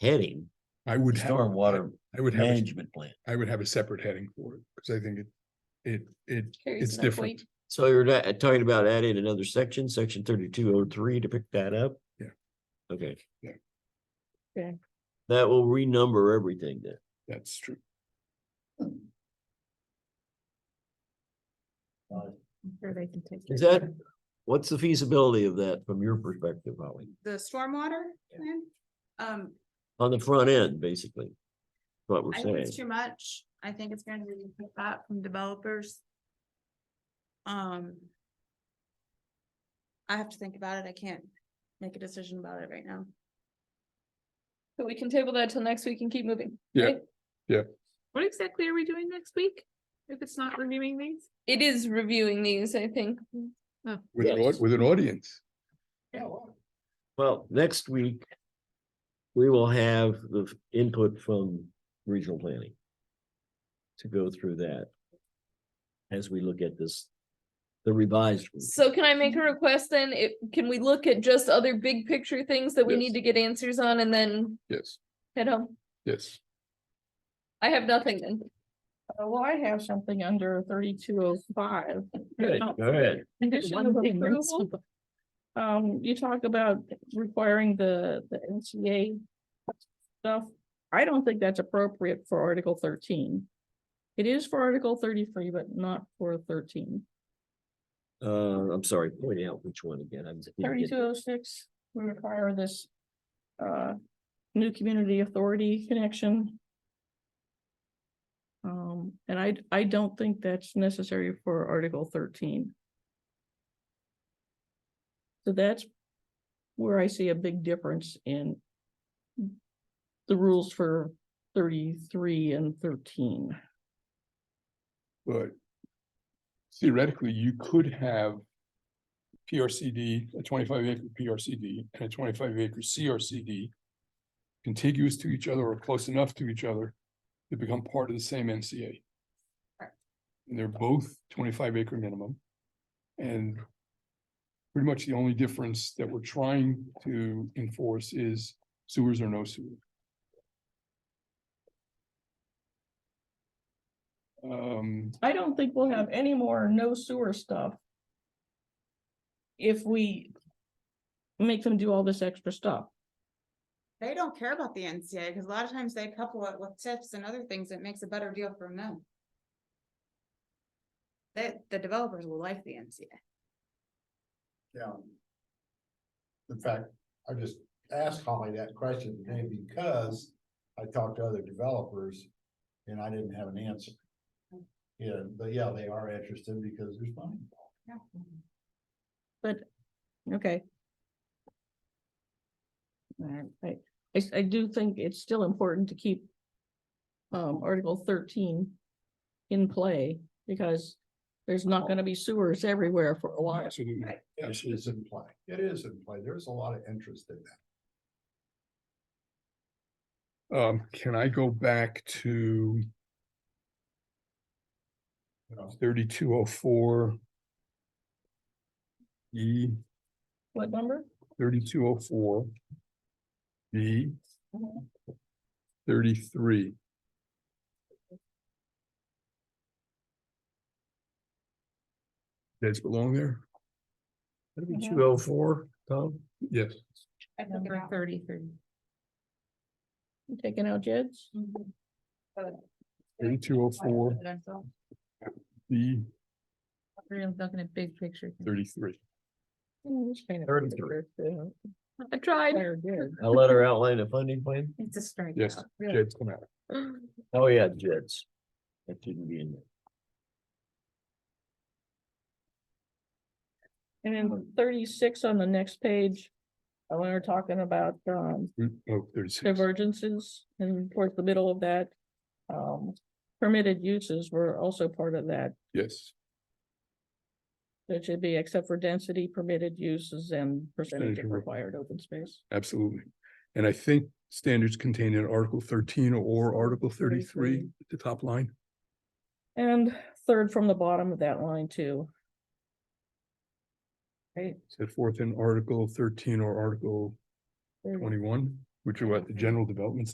heading, I would have, stormwater I would have, a- management plan. I would have a separate heading for it, because I think it, it, it, Carries it's no different. weight. So you're not- uh, talking about adding another section, section thirty-two oh three to pick that up? Yeah. Okay. Yeah. Okay. That will renumber everything then. That's true. Or they can take Is it. that, what's the feasibility of that from your perspective, Holly? the stormwater Yeah. plan. Um, On the front end, basically. What we're I think saying. it's too much. I think it's gonna be put back from developers. Um. I have to think about it. I can't make a decision about it right now. So we can table that till next week and keep moving. Yeah, right? yeah. What exactly are we doing next week? If it's not reviewing these? Oh. It is reviewing these, I think. With an, Yes. au- with an audience. Well, next week. We will have the f- input from regional planning. To go through that. As we look at this. The revised. one. So can I make a request then? It, can we look at just other big picture things that we Yes. need to get answers on and then Yes, head home? yes. I have nothing then. Uh, Well, I have something under thirty-two oh five. Good, go ahead. Condition of approval. Um, you talk about requiring the, the NCA stuff. I don't think that's appropriate for Article thirteen. It is for Article thirty-three, but not for thirteen. Uh, I'm sorry, point out which one again. I'm didn't get- Thirty-two oh six, we require this uh, new community authority connection. Um, and I, I don't think that's necessary for Article thirteen. So that's where I see a big difference in the rules for thirty-three and thirteen. But theoretically, you could have PRCD, a twenty-five acre PRCD and a twenty-five acre CRCD contiguous to each other or close enough to each other to become part of the same NCA. Correct. And they're both twenty-five acre minimum. And pretty much the only difference that we're trying to enforce is sewers or no sewer. Um, I don't think we'll have any more no sewer stuff. If we. Make them do all this extra stuff. They don't care about the NCA because a lot of times they couple it with tips and other things. It makes a better deal for them. That the developers will like the NCA. Yeah. In fact, I just asked Holly that question today because I talked to other developers and I didn't have an answer. Yeah, but yeah, they are interested because there's money. involved. But, okay. Alright, I, I, s- I do think it's still important to keep. Um, Article thirteen. In play, because there's not gonna be sewers everywhere for a while. absolutely. Yes, it's in play. It is in play. There's a lot of interest in that. Um, can I go back to you know. thirty-two oh four? E What number? thirty-two oh four. B thirty-three. Does it belong there? Two oh four, Tom? Yes, I took it out. thirty-three. You Taking out Jed's? Mhm. But- thirty-two oh four, B I'm looking at big picture. thirty-three. Mm, Thirty-three. I tried. I'll let her outline the funding plan. It's a strike. Yes, Jed's come out. Oh, yeah, Jets. That didn't be in there. And then thirty-six on the next page, uh, when we're talking about, um, Oh, thirty-six. divergences and towards the middle of that. Um, permitted uses were also part of that, Yes, that should be except for density permitted uses and percentage of Percentage of- required open space. absolutely. And I think standards contained in Article thirteen or Article thirty-three, 33. the top line. And third from the bottom of that line too. Right, set forth in Article thirteen or Article there you go. twenty-one. which are what the general development